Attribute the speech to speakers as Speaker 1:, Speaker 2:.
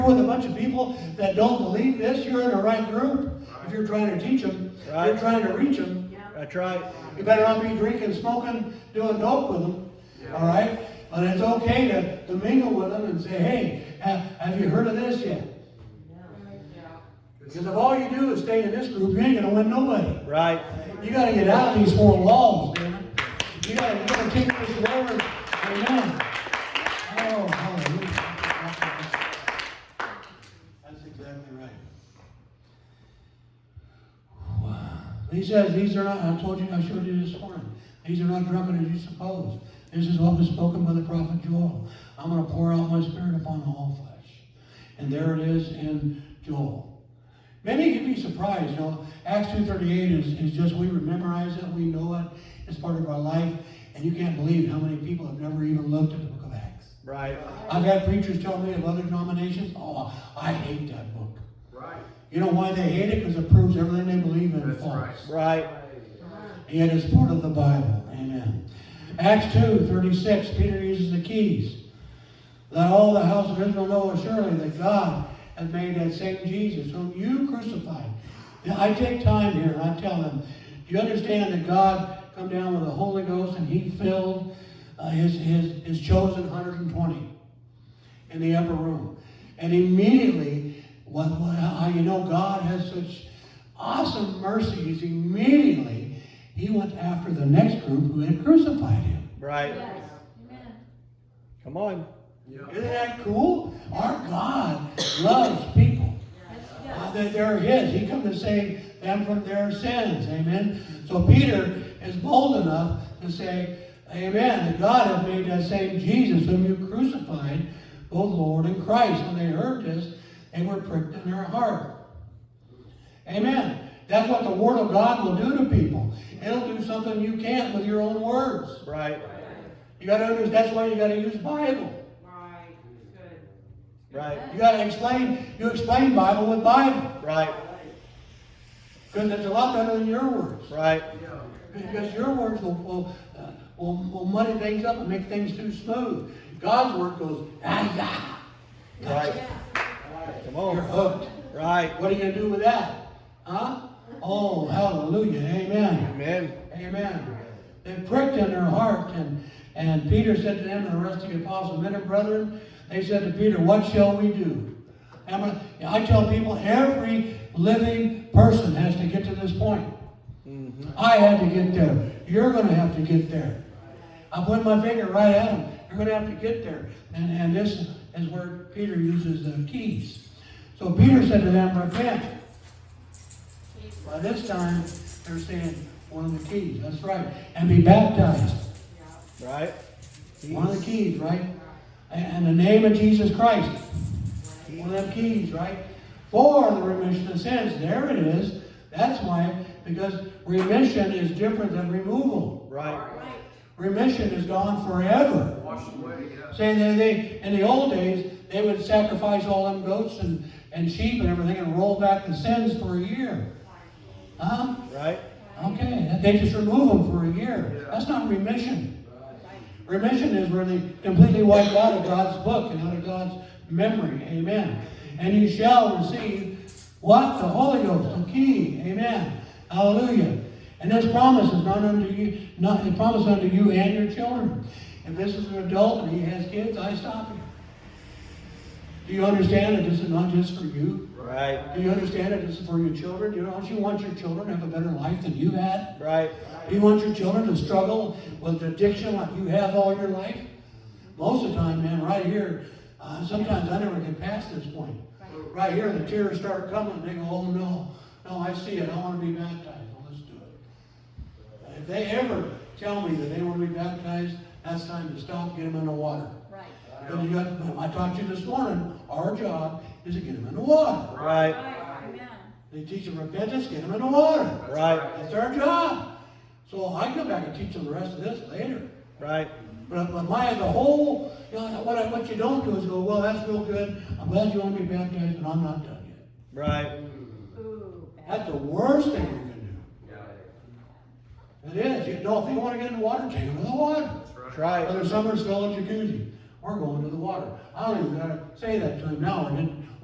Speaker 1: bunch of people that don't believe this, you're in the right group. If you're trying to teach them, if you're
Speaker 2: Right.
Speaker 1: trying to reach them,
Speaker 2: That's right.
Speaker 1: you better not be drinking, smoking, doing dope with them, all right? But it's okay to, to mingle with them and say, hey, have, have you heard of this yet? Because if all you do is stay in this group, you ain't gonna win nobody.
Speaker 2: Right.
Speaker 1: You gotta get out of these four walls, man. You gotta, you gotta take this word. Amen. Oh, hallelujah. That's exactly right. Wow. He says, these are not, I told you, I showed you this morning. These are not drunken as you suppose. This is what was spoken by the prophet Joel. I'm gonna pour out my spirit upon all flesh. And there it is in Joel. Many you'd be surprised, you know, Acts 2.38 is, is just, we memorize it, we know it, it's part of our life, and you can't believe how many people have never even looked at the book of Acts.
Speaker 2: Right.
Speaker 1: I've had preachers tell me of other denominations, oh, I hate that book.
Speaker 3: Right.
Speaker 1: You know why they hate it? Because it proves everything they believe in
Speaker 3: That's
Speaker 1: false.
Speaker 3: right.
Speaker 2: Right.
Speaker 1: It is part of the Bible. Amen. Acts 2 36, Peter uses the keys. Let all the house of Israel know surely that God has made that same Jesus whom you crucified. Now, I take time here and I tell them, do you understand that God come down with the Holy Ghost and he filled uh, his, his, his chosen 120? in the upper room. And immediately, what, what, how you know God has such awesome mercies, immediately he went after the next group who had crucified him.
Speaker 2: Right. Come on.
Speaker 1: Isn't that cool? Our God loves people. Uh, that they're his. He come to save them from their sins. Amen. So Peter is bold enough to say, Amen. That God has made that same Jesus whom you crucified, both Lord and Christ. When they heard this, they were pricked in their heart. Amen. That's what the word of God will do to people. It'll do something you can't with your own words.
Speaker 2: Right.
Speaker 1: You gotta understand that's why you gotta use Bible.
Speaker 2: Right.
Speaker 1: You gotta explain you explain Bible with Bible.
Speaker 2: Right.
Speaker 1: Because it's a lot better than your words.
Speaker 2: Right.
Speaker 1: Because your words will, will, uh, will, will muddy things up and make things too smooth. God's word goes, ah, yeah.
Speaker 2: Right. Come
Speaker 1: You're
Speaker 2: on.
Speaker 1: hooked.
Speaker 2: Right.
Speaker 1: What are you going to do with that? Huh? Oh, hallelujah. Amen.
Speaker 2: Amen.
Speaker 1: Amen. They pricked in their heart, and, and Peter said to them and the rest of the apostles, Men and brethren, they said to Peter, What shall we do? And I- I tell people, every living person has to get to this point. I had to get there. You're going to have to get there. I point my finger right at him. You're going to have to get there. And, and this is where Peter uses the keys. So Peter said to them, Repent. By this time, they're saying one of the keys. That's right. And be baptized.
Speaker 2: Right.
Speaker 1: One of the keys, right? And and the name of Jesus Christ. One of them keys, right? For the remission of sins. There it is. That's why, because remission is different than removal.
Speaker 2: Right.
Speaker 1: Remission is gone forever.
Speaker 3: Wash away, yeah.
Speaker 1: Say they, they in the old days they would sacrifice all them goats and, and sheep and everything and roll back the sins for a year. Huh?
Speaker 2: Right.
Speaker 1: Okay, they just remove them for a year. That's not remission. Remission is where they completely wipe out of God's book and out of God's memory. Amen. And you shall receive what? The Holy Ghost, the key. Amen. Hallelujah. And this promise is not unto you, not it promise unto you and your children. If this is an adult and he has kids, I stop him. Do you understand that this is not just for you?
Speaker 2: Right.
Speaker 1: Do you understand that this is for your children? You know, don't you want your children to have a better life than you had?
Speaker 2: Right.
Speaker 1: Do you want your children to struggle with addiction like you have all your life? Most of the time, man, right here, uh, sometimes I never get past this point. Right here, the tears start coming, and they go, oh no, no, I see it, I want to be baptized, well, let's do it. If they ever tell me that they want to be baptized, that's time to stop, get them in the water. Because you got, I taught you this morning, our job is to get them in the water.
Speaker 2: Right.
Speaker 1: They teach them repentance, get them in the water.
Speaker 2: Right.
Speaker 1: That's our job. So I go back and teach them the rest of this later.
Speaker 2: Right.
Speaker 1: But, but my, the whole, you know, what, I, what you don't do is go, well, that's real good. I'm glad you want to be baptized, and I'm not done yet.
Speaker 2: Right.
Speaker 1: That's the worst thing you can
Speaker 3: Yeah.
Speaker 1: do. It is. You know, if they want to get in the water, take them to the water.
Speaker 2: That's
Speaker 3: That's right.
Speaker 2: right.
Speaker 1: Whether summer's still in jacuzzi, we're going to the water. I don't even gotta say that to him now, I didn't,